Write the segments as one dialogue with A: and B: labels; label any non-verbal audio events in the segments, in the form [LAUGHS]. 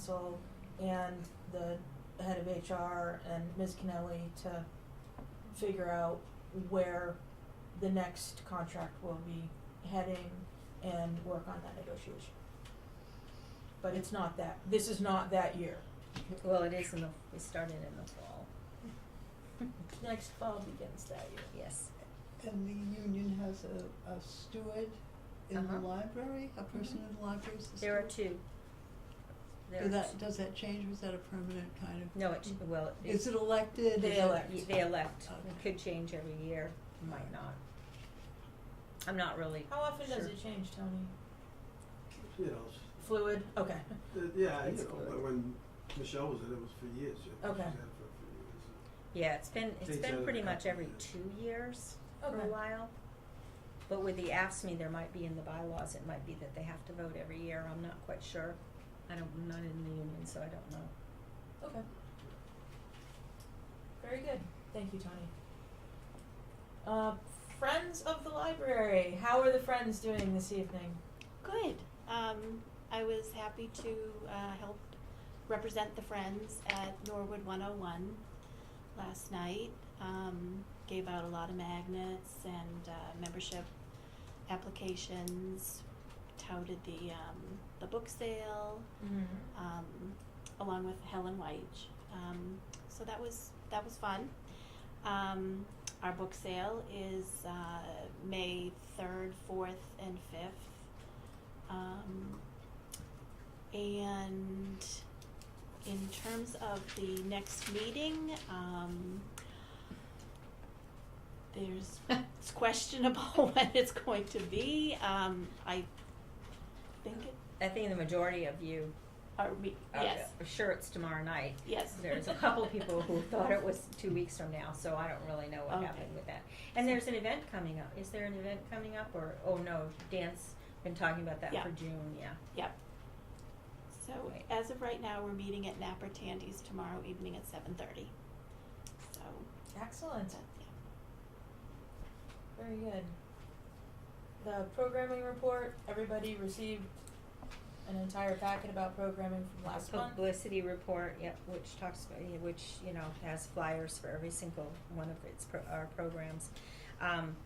A: council and the head of HR and Ms. Kennelly to figure out where the next contract will be heading and work on that negotiation. But it's not that, this is not that year.
B: Well, it is in the, we started in the fall,
A: Next fall begins that year.
B: yes.
C: And the union has a, a steward in the
B: Uh-huh.
C: library, a person in the library is the steward?
B: There are two. There
C: Do
B: are
C: that,
B: two.
C: does that change, or is that a permanent kind of?
B: No, it, well, it
C: Is it elected?
A: They
C: Is it-
A: elect.
B: y- they elect, it
C: Okay.
B: could change every year, might
C: Right.
B: not. I'm not really,
A: How often does
B: Sure.
A: it change, Tony?
D: You know, s-
A: Fluid? Okay.
D: uh, yeah, you
B: It's
D: know,
B: good.
D: when- when Michelle was in, it was for years. you know,
A: Okay.
D: She was in for a few years.
B: yeah, it's been, it's
D: Takes out
B: been
D: a
B: pretty much
D: couple
B: every
D: years.
B: two years for
A: Okay.
B: a while. But with the AFSCME, there might be in the bylaws, it might be that they have to vote every year, I'm not quite sure. I don't, I'm not in the union, so I don't know.
A: Okay. Very good. Thank you, Tony. Uh, friends of the library. How are the friends doing this evening?
E: Good. Um, I was happy to uh, help represent the friends at Norwood 101 last night. Um, gave out a lot of magnets and uh, membership applications. Touted the um, the book sale
A: Mm-hmm.
E: um, along with Helen Weich. Um, so that was that was fun. Um, our book sale is uh, May third, fourth, and fifth, um, and in terms of the next meeting. Um,
B: [LAUGHS]
E: there's it's questionable [LAUGHS] when it's going to be. Um, I think it.
B: I think the majority of you,
E: Are we,
B: uh,
E: yes.
B: are sure it's tomorrow night,
E: Yes. [LAUGHS]
B: There's a couple people who thought it was two weeks from now, so I don't really know what
E: Okay.
B: happened with that. And there's an event coming up. Is there an event coming up or, oh no, Dan's been talking about that
E: Yeah.
B: for June, yeah.
E: Yep. So as of right now, we're meeting at Napper Tandy's tomorrow evening at seven thirty. So
A: Excellent.
E: that's yeah.
A: Very good. The programming report. Everybody received an entire packet about programming from last
B: The
A: month.
B: Publicity report, yep, which talks, about yeah, which, you know, has flyers for every single one of its pro- our programs. Um,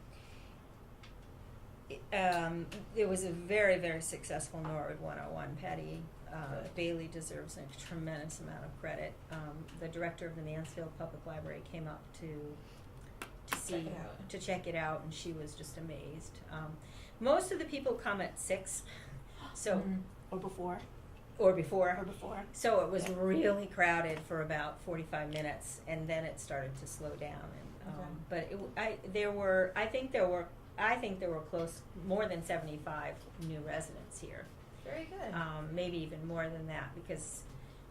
B: it- um, it was a very, very successful Norwood 101. Patty uh,
A: Good.
B: Bailey deserves a tremendous amount of credit. Um, the director of the Mansfield Public Library came up to to see
A: Check it out.
B: to check it out, and she was just amazed. Um, most of the people come at six, so
A: Mhm.
E: Or before,
B: or before.
E: or before.
B: So it was
E: Yeah.
B: really crowded for about forty-five minutes, and then it started to slow down. And,
A: Okay.
B: um, but it, w- I, there were, I think there were, I think there were close more than seventy-five new residents here.
A: Very good.
B: Um, maybe even more than that because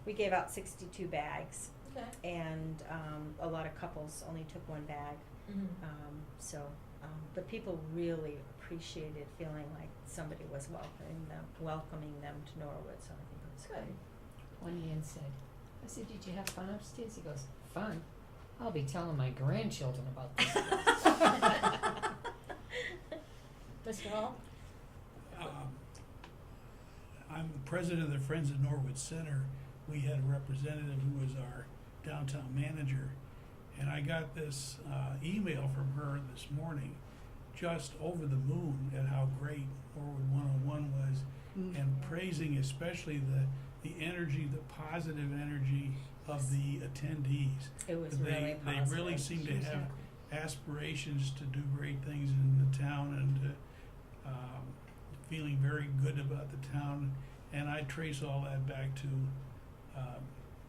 B: we gave out sixty-two bags,
A: okay.
B: and um, a lot of couples only took one bag.
A: Mm-hmm.
B: Um, so, um, but people really appreciated feeling like somebody was welcoming them, welcoming them to Norwood. So I think it was
A: Good.
B: [LAUGHS]
A: [LAUGHS]
B: great.
F: One man said, I said, Did you have fun upstairs? He goes, Fun? I'll be telling my grandchildren about this.
A: Mr. Hall.
G: Um, I'm the president of the Friends of Norwood Center. We had a representative who was our downtown manager. And I got this uh, email from her this morning, just over the moon at how great Norwood 101 was
C: Mm.
G: and praising especially the, the energy, the positive energy of the attendees.
B: It was
G: they,
B: really
G: they
B: positive.
G: really seem to
F: She was
G: have
F: happy.
G: aspirations to do great things in the town and uh, um, feeling very good about the town. And I trace all that back to um,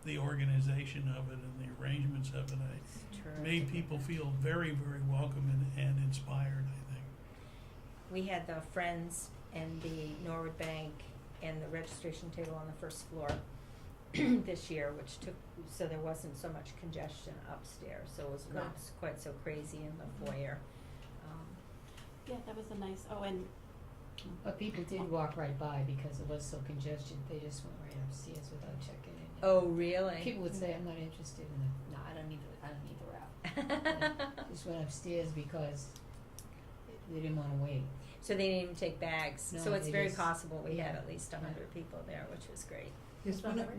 G: the organization of it and the arrangements of it. I
B: It's terrific.
G: made people feel very, very welcome and, and inspired, I think.
B: We had the Friends and the Norwood Bank and the registration table on the first floor [CLEARS THROAT] this year, which took, so there wasn't so much congestion upstairs, so it was not s- quite so crazy in
F: Mm-hmm.
B: the foyer. Um,
E: Yeah, that was a nice, oh, and
F: But people did walk right by because it was so congested. They just went right upstairs without checking in.
B: Oh, really? [LAUGHS]
F: People would say, I'm not interested in the, no, I don't need the, I don't need the route. Just went upstairs because they didn't wanna wait.
B: So they didn't even take bags, so
F: No,
B: it's
F: they
B: very
F: just-
B: possible we had
F: yeah.
B: at least a hundred people there, which was great.
C: Yes, when I-